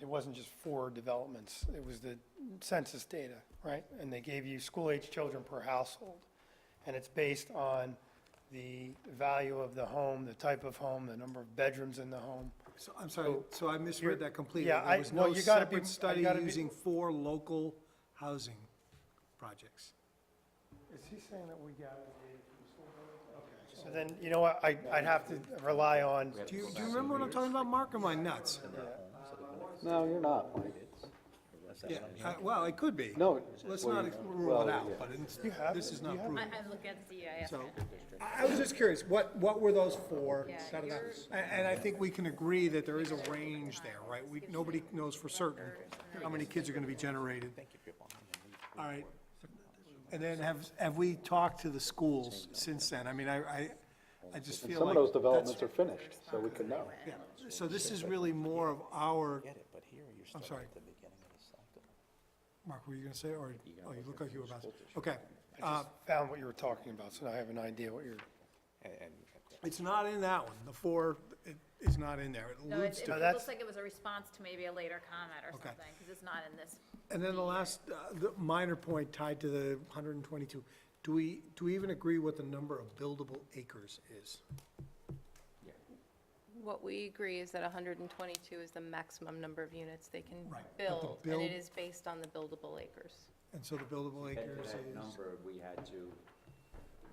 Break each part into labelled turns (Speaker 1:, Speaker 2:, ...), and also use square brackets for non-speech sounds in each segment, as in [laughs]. Speaker 1: it wasn't just four developments, it was the census data, right? And they gave you school-age children per household. And it's based on the value of the home, the type of home, the number of bedrooms in the home.
Speaker 2: So, I'm sorry, so I misread that completely.
Speaker 1: yeah, I-
Speaker 2: There was
Speaker 1: well,
Speaker 2: no
Speaker 1: you gotta be-
Speaker 2: separate
Speaker 1: I
Speaker 2: study
Speaker 1: gotta be-
Speaker 2: using four local housing projects.
Speaker 1: Is he saying that we got the data from school board? Okay, so then, you know what, I, I'd have to rely on,
Speaker 2: Do you, do you remember what I'm talking about, Mark, or am I nuts?
Speaker 3: No, you're not.
Speaker 2: Yeah, uh, well, it could be.
Speaker 3: No.
Speaker 2: Let's not ex- rule
Speaker 3: well,
Speaker 2: it out,
Speaker 3: yeah.
Speaker 2: but it's,
Speaker 1: have
Speaker 2: this
Speaker 1: it,
Speaker 2: is
Speaker 1: you
Speaker 2: not
Speaker 1: have
Speaker 2: proven.
Speaker 4: I, I look at the GIS.
Speaker 2: So-
Speaker 4: map, yeah.
Speaker 2: I I was just curious, what, what were those for?
Speaker 4: Yeah,
Speaker 2: Da, da, da.
Speaker 4: yours-
Speaker 2: And, and I think we can agree that there is a range there, right? We, nobody knows for certain how many kids are gonna be generated. All right, and then have, have we talked to the schools since then? I mean, I, I, I just feel
Speaker 3: Some
Speaker 2: like.
Speaker 3: of those
Speaker 2: that's-
Speaker 3: developments are finished, so we could know.
Speaker 2: Yeah, so this is really more of our,
Speaker 5: get it, but here you're stuck
Speaker 2: sorry.
Speaker 5: at the beginning of the cycle.
Speaker 2: Mark, were you gonna say, or, oh, you look like you were about to, okay. uh,
Speaker 1: I just found what you were talking about, so now I have an idea what you're.
Speaker 5: And- And
Speaker 2: It's not in that one, the four, it is not in there, it
Speaker 4: No,
Speaker 2: alludes
Speaker 4: it,
Speaker 2: to.
Speaker 4: it
Speaker 1: No,
Speaker 4: looks
Speaker 1: that's-
Speaker 4: like it was a response to maybe a later comment or
Speaker 2: Okay.
Speaker 4: something, because it's not in this.
Speaker 2: And then the last, uh, the minor point tied to the 122, do we, do we even agree what the number of buildable acres is?
Speaker 6: What we agree is that 122 is the maximum number of units they can
Speaker 2: Right, but the
Speaker 6: build, and
Speaker 2: build-
Speaker 6: it is based on the buildable acres.
Speaker 2: And so the buildable
Speaker 7: get
Speaker 2: acres
Speaker 7: to
Speaker 2: is,
Speaker 7: that number, we had to,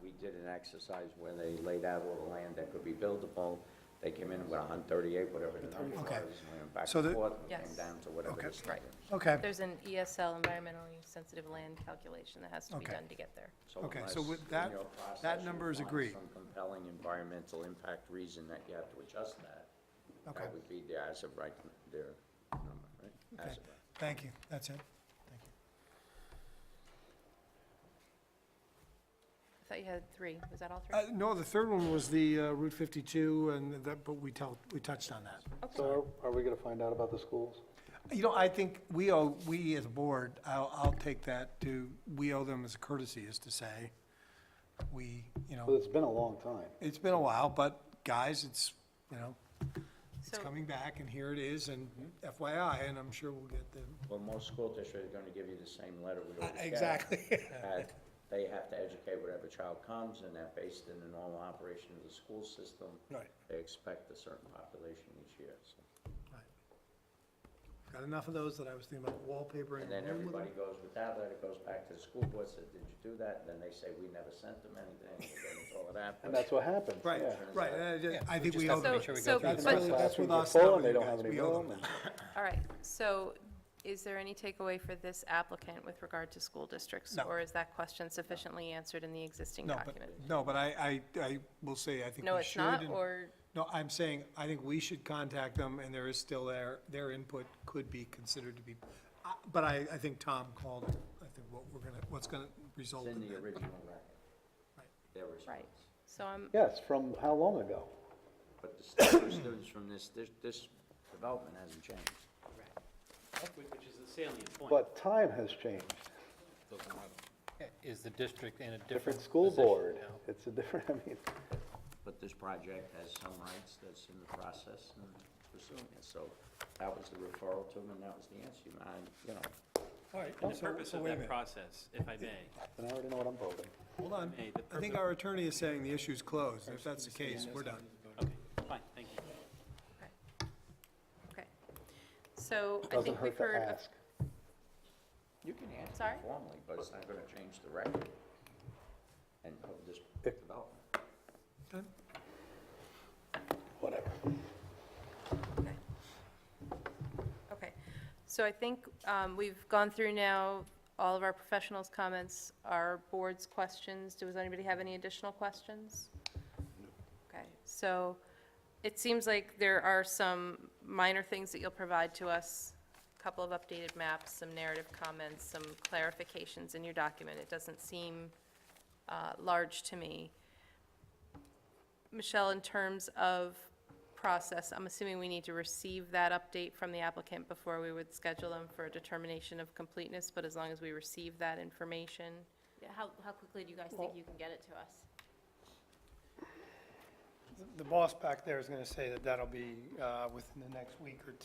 Speaker 7: we did an exercise where they laid out all the land that could be buildable. They came in with hundred and thirty-eight, whatever the number was,
Speaker 2: Okay.
Speaker 7: and we went back
Speaker 2: So the-
Speaker 7: and forth, we came
Speaker 6: Yes.
Speaker 7: down to whatever
Speaker 2: Okay.
Speaker 7: this number is.
Speaker 2: okay,
Speaker 6: There's an ESL, environmentally sensitive land calculation that has to be
Speaker 2: Okay.
Speaker 6: done to get there.
Speaker 2: Okay, so
Speaker 7: unless
Speaker 2: with
Speaker 7: in
Speaker 2: that-
Speaker 7: your
Speaker 2: that
Speaker 7: process you
Speaker 2: number is
Speaker 7: find
Speaker 2: agreed.
Speaker 7: Some compelling environmental impact reason that you have to adjust that.
Speaker 2: Okay.
Speaker 7: That would be the as of right, their number, right? As of right.
Speaker 2: thank you, that's it. Thank you.
Speaker 6: I thought you had three. Was that all three?
Speaker 2: Uh, No, the third one was the uh, Route 52, and that, but we tell, we touched on that.
Speaker 3: So are are we gonna find out about the schools?
Speaker 2: You know, I think we owe, we as a board, I'll, I'll take that to, we owe them as a courtesy, is to say, we, you
Speaker 3: Well,
Speaker 2: know,
Speaker 3: it's been a long time.
Speaker 2: it's been a while, but guys, it's, you know, It's
Speaker 6: So-
Speaker 2: coming back, and here it is, and FYI, and I'm sure we'll get the.
Speaker 7: Well, most school districts are gonna give you the same letter we
Speaker 2: Uh,
Speaker 7: always get.
Speaker 2: [laughs]
Speaker 7: that they have to educate whatever child comes, and that based in the normal operation of the school system.
Speaker 2: Right.
Speaker 7: They expect a certain population each year, so.
Speaker 2: Got enough of those that I was thinking about wallpaper and.
Speaker 7: And then everybody goes with that letter, goes back to the school board, says, did you do that? And then they say, we never sent them anything,
Speaker 2: [laughs]
Speaker 7: and then it's all of that.
Speaker 3: And that's what happened,
Speaker 2: Right,
Speaker 3: yeah.
Speaker 2: right, and I just- I think we owe them.
Speaker 6: So, so,
Speaker 2: That's
Speaker 6: but-
Speaker 2: really, that's with
Speaker 3: Classrooms are
Speaker 2: us,
Speaker 3: full
Speaker 2: not
Speaker 3: and
Speaker 2: with
Speaker 3: they
Speaker 2: you
Speaker 3: don't
Speaker 2: guys.
Speaker 3: have any
Speaker 2: We owe
Speaker 3: room
Speaker 2: them
Speaker 3: and-
Speaker 2: that.
Speaker 6: all right. So is there any takeaway for this applicant with regard to school districts?
Speaker 2: No.
Speaker 6: Or is that question sufficiently answered in the existing
Speaker 2: No, but,
Speaker 6: document?
Speaker 2: no, but I, I, I will say, I think we should.
Speaker 6: No, it's not,
Speaker 2: and-
Speaker 6: or,
Speaker 2: No, I'm saying, I think we should contact them, and there is still their, their input could be considered to be, I- but I, I think Tom called, it. I think what we're gonna, what's gonna result
Speaker 7: It's
Speaker 2: in
Speaker 7: in the
Speaker 2: that.
Speaker 7: original record. Their
Speaker 6: right.
Speaker 7: response.
Speaker 6: So I'm,
Speaker 3: Yes, from how long ago?
Speaker 7: But the stu- students from this, this, this development hasn't changed.
Speaker 8: Which is the salient point.
Speaker 3: But time has changed.
Speaker 8: Is the district in a different
Speaker 3: Different school
Speaker 8: position
Speaker 3: board.
Speaker 8: now?
Speaker 3: It's a different, [laughs] I mean,
Speaker 7: But this project has some rights that's in the process and pursuing it, so that was the referral to them, and that was the answer, and I, you know,
Speaker 2: All right,
Speaker 8: And the
Speaker 2: so-
Speaker 8: purpose
Speaker 2: so
Speaker 8: of
Speaker 2: Oh, wait a
Speaker 8: that
Speaker 2: minute.
Speaker 8: process, if I may,
Speaker 3: and I already know what I'm voting.
Speaker 2: Hold on.
Speaker 8: Hey, the
Speaker 2: Um, I think our attorney is saying the issue's closed. If that's the case, we're done.
Speaker 8: okay, fine, thank you.
Speaker 6: okay. So I
Speaker 3: Doesn't
Speaker 6: think we've
Speaker 3: hurt to
Speaker 6: heard. a-
Speaker 3: ask.
Speaker 7: You can answer
Speaker 6: Sorry?
Speaker 7: formally, but it's not gonna change the record and of this development.
Speaker 2: Done?
Speaker 3: Whatever.
Speaker 6: Okay. Okay, so I think um, we've gone through now all of our professionals' comments, our board's questions. Does anybody have any additional questions? Okay, so it seems like there are some minor things that you'll provide to us, a couple of updated maps, some narrative comments, some clarifications in your document. It doesn't seem uh, large to me. Michelle, in terms of process, I'm assuming we need to receive that update from the applicant before we would schedule them for a determination of completeness, but as long as we receive that information,
Speaker 4: Yeah, How, how quickly do you guys think you can get it to us?
Speaker 1: The boss back there is gonna say that that'll be, uh, within the next week or two.